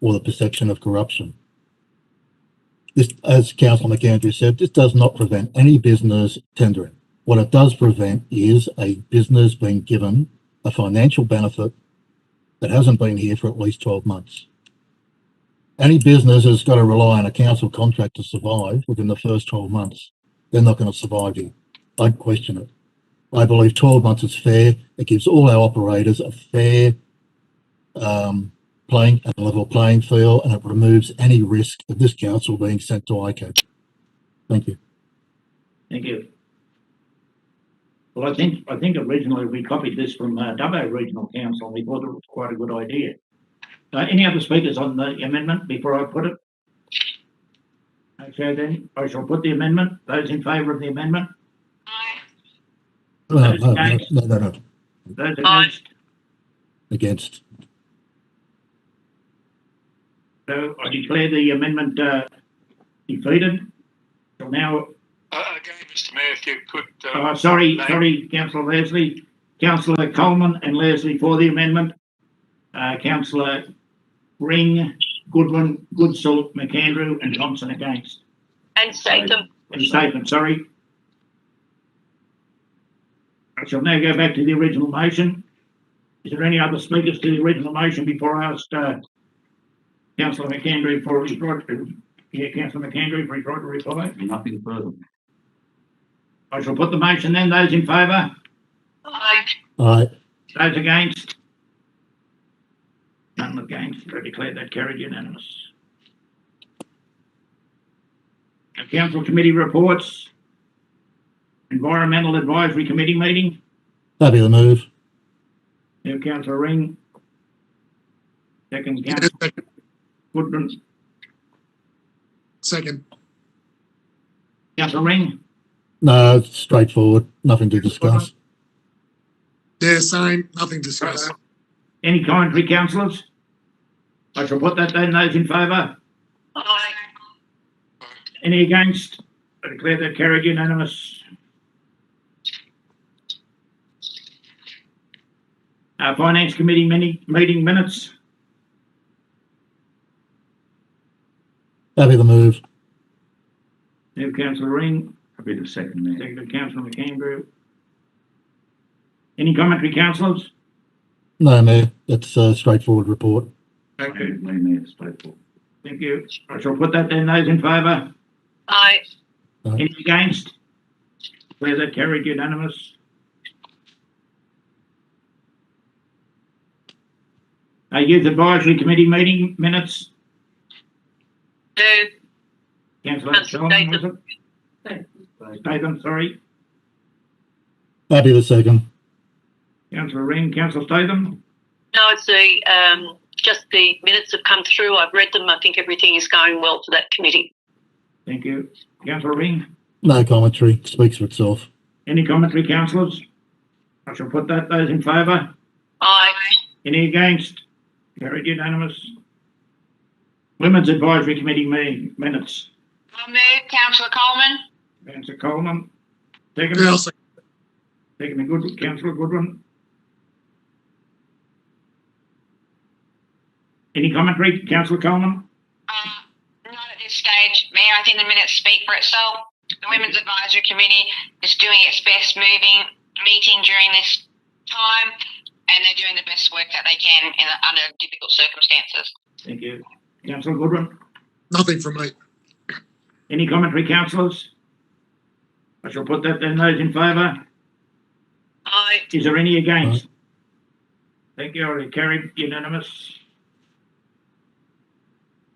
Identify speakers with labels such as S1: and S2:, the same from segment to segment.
S1: or the perception of corruption. This, as Councillor McAndrew said, this does not prevent any business tendering. What it does prevent is a business being given a financial benefit that hasn't been here for at least 12 months. Any business has got to rely on a council contract to survive within the first 12 months. They're not going to survive here. I'd question it. I believe 12 months is fair. It gives all our operators a fair um, playing and level playing field, and it removes any risk of this council being sent to ICAC. Thank you.
S2: Thank you. Well, I think, I think originally we copied this from uh, Dubbo Regional Council, and we thought it was quite a good idea. Uh, any other speakers on the amendment before I put it? Okay, then, I shall put the amendment. Those in favour of the amendment,
S1: No, no, no, no, no, no.
S2: those
S3: Aye.
S2: against?
S1: against.
S2: So I declare the amendment, uh, defeated. So now,
S4: Uh, Again, Mr Mayor, if you could, uh,
S2: oh, sorry, sorry, councillor Leslie, councillor Coleman and Leslie for the amendment. Uh, councillor Ring, Goodwin, Goodsall, McAndrew and Thompson against.
S3: And Statham.
S2: And Statham, sorry. I shall now go back to the original motion. Is there any other speakers to the original motion before I ask, uh, councillor McAndrew for his right to, yeah, councillor McAndrew for his right to reply?
S5: Nothing further.
S2: I shall put the motion then. Those in favour?
S3: Aye.
S1: Aye,
S2: Those against? None against, I declare that carried unanimous. Now, council committee reports. Environmental Advisory Committee meeting,
S1: that'd be the move.
S2: now councillor Ring. Second councillor
S6: Second.
S2: Goodman,
S6: Second.
S2: councillor Ring,
S1: No, it's straightforward. Nothing to discuss.
S6: Yeah, same, nothing discussed.
S2: any commentary councillors? I shall put that then, those in favour,
S3: Aye.
S2: any against? I declare that carried unanimous. Uh, Finance Committee mini, meeting minutes,
S1: That'd be the move.
S2: now councillor Ring,
S5: I'll be the second, Mayor.
S2: seconded councillor McAndrew. Any commentary councillors?
S1: No, Mayor, that's a straightforward report.
S5: I agree, Mayor, it's straightforward.
S2: Thank you. I shall put that then, those in favour,
S3: Aye.
S2: any against? Declare that carried unanimous. Uh, Youth Advisory Committee meeting minutes,
S3: Do.
S2: councillor
S3: Councillor
S2: Solomon, was it? Statham, sorry.
S1: That'd be the second.
S2: Councillor Ring, councillor Statham.
S3: No, it's the, um, just the minutes have come through. I've read them. I think everything is going well for that committee.
S2: Thank you. Councillor Ring,
S1: No commentary. Speaks for itself.
S2: any commentary, councillors? I shall put that, those in favour.
S3: Aye.
S2: Any against? Carried unanimous. Women's Advisory Committee meeting minutes.
S3: I move, councillor Coleman.
S2: Councillor Coleman. Second,
S6: Yeah, I'll second.
S2: second, and good, councillor Goodwin. Any commentary, councillor Coleman?
S7: Uh, Not at this stage, Mayor. I think the minutes speak for itself. The Women's Advisory Committee is doing its best moving, meeting during this time, and they're doing the best work that they can in, under difficult circumstances.
S2: Thank you. Councillor Goodwin?
S6: Nothing from me.
S2: Any commentary, councillors? I shall put that then, those in favour.
S3: Aye.
S2: Is there any against? Thank you, I carried unanimous.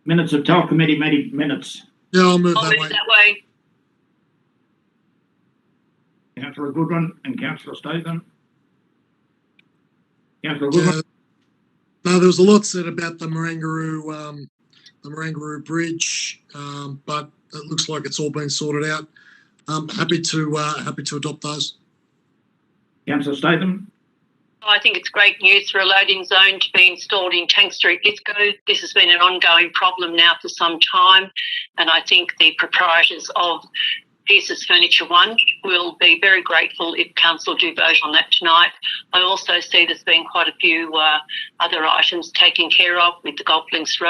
S2: Minutes of Tell Committee meeting minutes.
S6: Yeah, I'll move
S3: I'll
S6: that
S3: move
S6: way.
S3: that way.
S2: Councillor Goodwin and councillor Statham. Councillor
S6: Yeah.
S2: Goodwin,
S6: No, there was a lot said about the Marangaroo, um, the Marangaroo Bridge, um, but it looks like it's all been sorted out. Um, happy to, uh, happy to adopt those.
S2: councillor Statham,
S3: I think it's great news for a loading zone to be installed in Tank Street, Disco. This has been an ongoing problem now for some time, and I think the proprietors of Pierce's Furniture One will be very grateful if council do vote on that tonight. I also see there's been quite a few uh, other items taken care of with the Golf Links Road.